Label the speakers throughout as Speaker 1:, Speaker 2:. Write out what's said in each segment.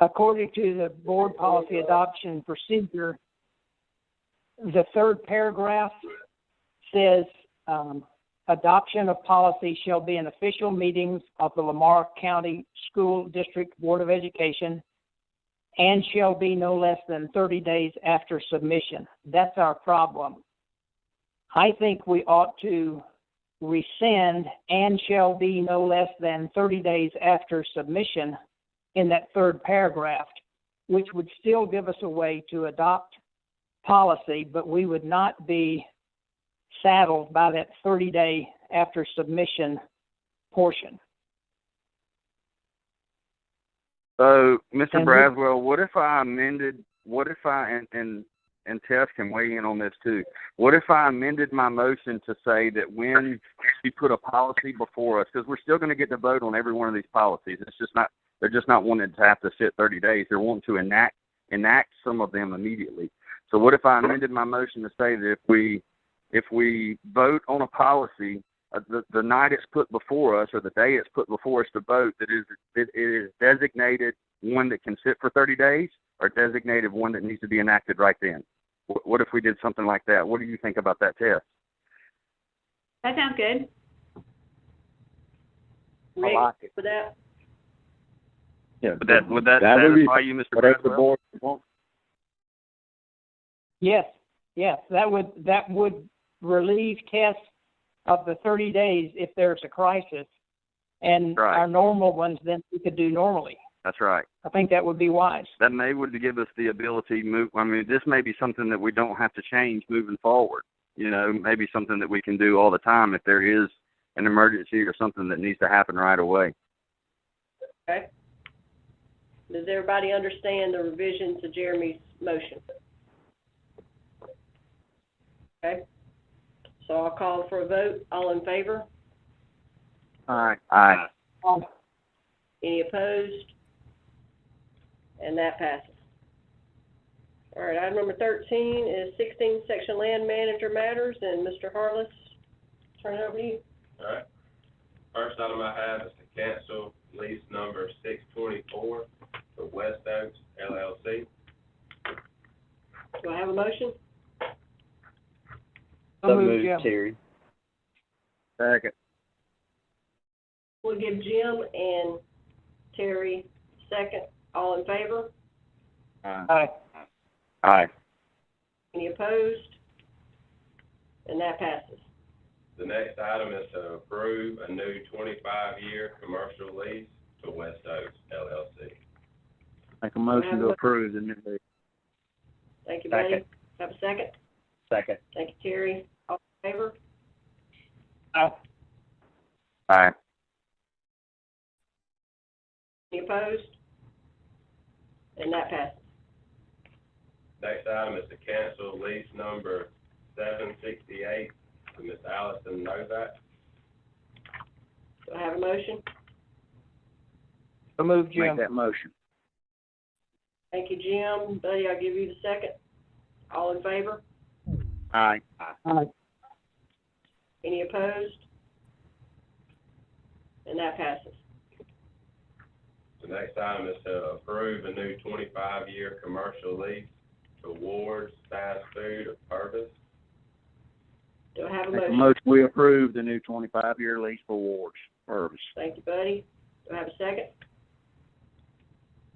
Speaker 1: According to the board policy adoption procedure, the third paragraph says, um, adoption of policy shall be in official meetings of the Lamar County School District Board of Education and shall be no less than thirty days after submission. That's our problem. I think we ought to rescind and shall be no less than thirty days after submission in that third paragraph, which would still give us a way to adopt policy, but we would not be saddled by that thirty day after submission portion.
Speaker 2: So, Mr.
Speaker 1: And we-
Speaker 2: Braswell, what if I amended, what if I, and, and, and Tess can weigh in on this too. What if I amended my motion to say that when you put a policy before us, because we're still going to get to vote on every one of these policies. It's just not, they're just not wanting to have to sit thirty days. They're wanting to enact, enact some of them immediately. So what if I amended my motion to say that if we, if we vote on a policy, uh, the, the night it's put before us or the day it's put before us to vote, that is, that it is designated one that can sit for 30 days or designated one that needs to be enacted right then? Wh- What if we did something like that? What do you think about that, Tess?
Speaker 3: That sounds good.
Speaker 1: I
Speaker 3: Rick,
Speaker 1: like it.
Speaker 3: for that?
Speaker 4: Yeah,
Speaker 2: Would that, would that
Speaker 4: That would be
Speaker 2: satisfy you, Mr.
Speaker 4: whatever the
Speaker 2: Braswell?
Speaker 4: board wants.
Speaker 1: Yes, yes, that would, that would relieve tests of the thirty days if there's a crisis. And
Speaker 2: Right.
Speaker 1: our normal ones, then we could do normally.
Speaker 2: That's right.
Speaker 1: I think that would be wise.
Speaker 2: That may would give us the ability to move, I mean, this may be something that we don't have to change moving forward. You know, maybe something that we can do all the time if there is an emergency or something that needs to happen right away.
Speaker 3: Okay. Does everybody understand the revision to Jeremy's motion? Okay. So I'll call for a vote. All in favor?
Speaker 2: All right. Aye.
Speaker 1: Um,
Speaker 3: Any opposed? And that passes. All right, item number thirteen is sixteen, section land manager matters, and Mr. Harless, turn it over to you.
Speaker 5: Alright. First item I have is to cancel lease number six twenty-four for West Oaks LLC.
Speaker 3: Do I have a motion?
Speaker 1: so
Speaker 4: So
Speaker 1: moved,
Speaker 4: moved,
Speaker 1: Jim.
Speaker 4: Terry.
Speaker 2: Second.
Speaker 3: We'll give Jim and Terry second. All in favor?
Speaker 1: Aye.
Speaker 2: Aye.
Speaker 3: Any opposed? And that passes.
Speaker 5: The next item is to approve a new twenty-five year commercial lease to West Oaks LLC.
Speaker 4: Make a
Speaker 3: motion to
Speaker 4: approve the new.
Speaker 3: Thank you, Buddy.
Speaker 4: Second.
Speaker 3: Have a second?
Speaker 4: Second.
Speaker 3: Thank you, Terry. All in favor?
Speaker 1: Aye.
Speaker 2: Aye.
Speaker 3: Any opposed? And that passes.
Speaker 5: Next item is to cancel lease number seven sixty-eight to Ms. Allison Novak.
Speaker 3: Do I have a motion?
Speaker 1: So moved, Jim.
Speaker 4: that motion.
Speaker 3: Thank you, Jim. Buddy, I'll give you the second. All in favor?
Speaker 4: Aye.
Speaker 1: Aye.
Speaker 3: Any opposed? And that passes.
Speaker 5: The next item is to approve a new twenty-five year commercial lease to Ward's Fast Food of Purvis.
Speaker 3: Do I have a
Speaker 4: Make a
Speaker 3: motion?
Speaker 4: motion, we approve the new twenty-five year lease for Ward's Purvis.
Speaker 3: Thank you, Buddy. Do I have a second?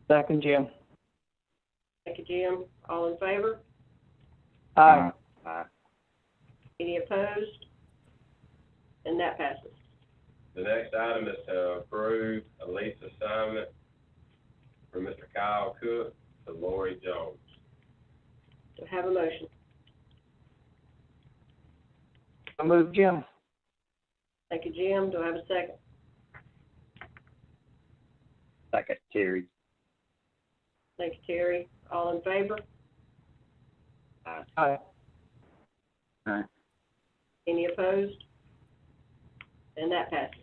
Speaker 1: Second, Jim.
Speaker 3: Thank you, Jim. All in favor?
Speaker 1: Aye.
Speaker 3: Any opposed? And that passes.
Speaker 5: The next item is to approve a lease assignment for Mr. Kyle Cook to Lori Jones.
Speaker 3: Do I have a motion?
Speaker 1: So moved, Jim.
Speaker 3: Thank you, Jim. Do I have a second?
Speaker 4: Second, Terry.
Speaker 3: Thank you, Terry. All in favor?
Speaker 1: Aye.
Speaker 3: Any opposed? And that passes.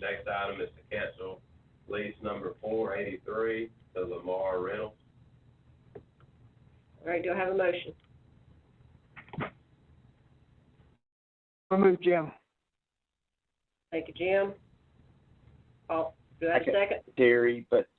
Speaker 5: Next item is to cancel lease number four eighty-three to Lamar Reynolds.
Speaker 3: All right, do I have a motion?
Speaker 1: So moved, Jim.
Speaker 3: Thank you, Jim. All, do I have a
Speaker 4: Second.
Speaker 3: second?
Speaker 4: Terry, but